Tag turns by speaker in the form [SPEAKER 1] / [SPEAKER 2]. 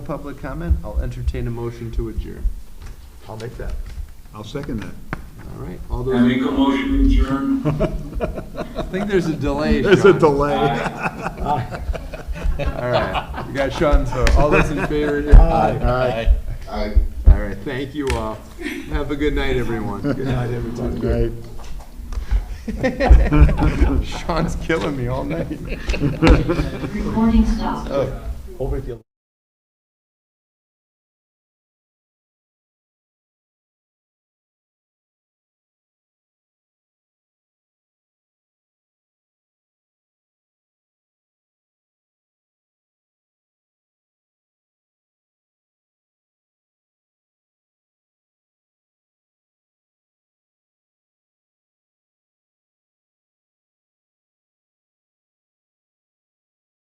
[SPEAKER 1] public comment. I'll entertain a motion to adjourn.
[SPEAKER 2] I'll make that. I'll second that.
[SPEAKER 1] All right, all
[SPEAKER 3] I
[SPEAKER 1] those,
[SPEAKER 3] make a motion to adjourn.
[SPEAKER 1] I think there's a delay,
[SPEAKER 2] There's a
[SPEAKER 1] Sean.
[SPEAKER 2] delay.
[SPEAKER 1] All right, you got Sean's vote. All those in favor?
[SPEAKER 2] Aye.
[SPEAKER 3] Aye.
[SPEAKER 1] All right, thank you all. Have a good night, everyone. Good night,
[SPEAKER 2] Aye.
[SPEAKER 1] everyone. Sean's killing me all night.
[SPEAKER 4] Recording stopped.
[SPEAKER 1] Oh.